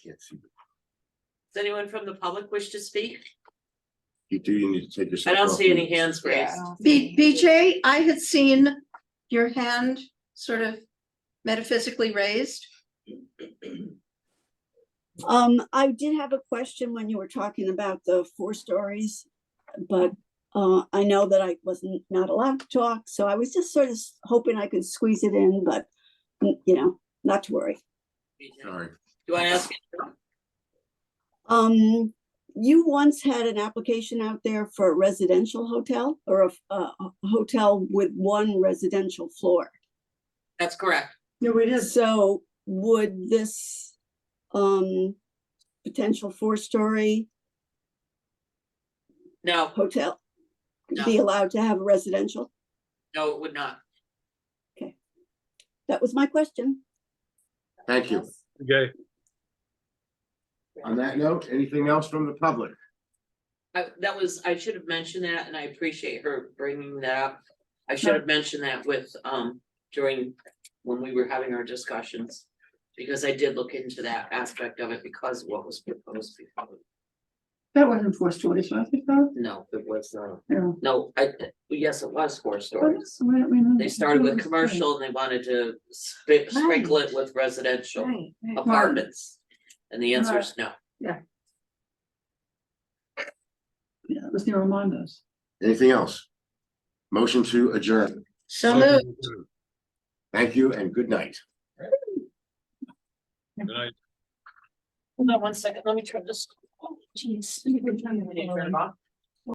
can't see. Does anyone from the public wish to speak? You do, you need to take I yourself. don't off see any mute. hands raised. B- BJ, I had seen your hand sort of metaphysically raised. Um, I did have a question when you were talking about the four stories, but uh, I know that I wasn't not allowed to talk, so I was just sort of s- hoping I could squeeze it in, but mm, you know, not to worry. Do Sorry. you want to ask? Um, you once had an application out there for a residential hotel or a, f- a- a hotel with one residential floor. That's correct. No, it is. So would this um potential four-story No, hotel No. be allowed to have a residential? no, it would not. That was my question. Thank you. Okay, On that note, anything else from the public? I, that was, I should have mentioned that and I appreciate her bringing that up. I should have mentioned that with, um, during, when we were having our discussions. Because I did look into that aspect of it because of what was proposed before. That wasn't four stories, was it though? No, it was not. No. No, I, yes, it was four stories. Why don't we move They it to started with four commercial and they wanted to sp- sprinkle it with residential stories? Right, right. apartments. And the answer is no. Yeah, it was near Armando's. Anything else? Motion to adjourn. So moved. Thank you and good night. good night. Hold on one second, let me turn this. Jeez.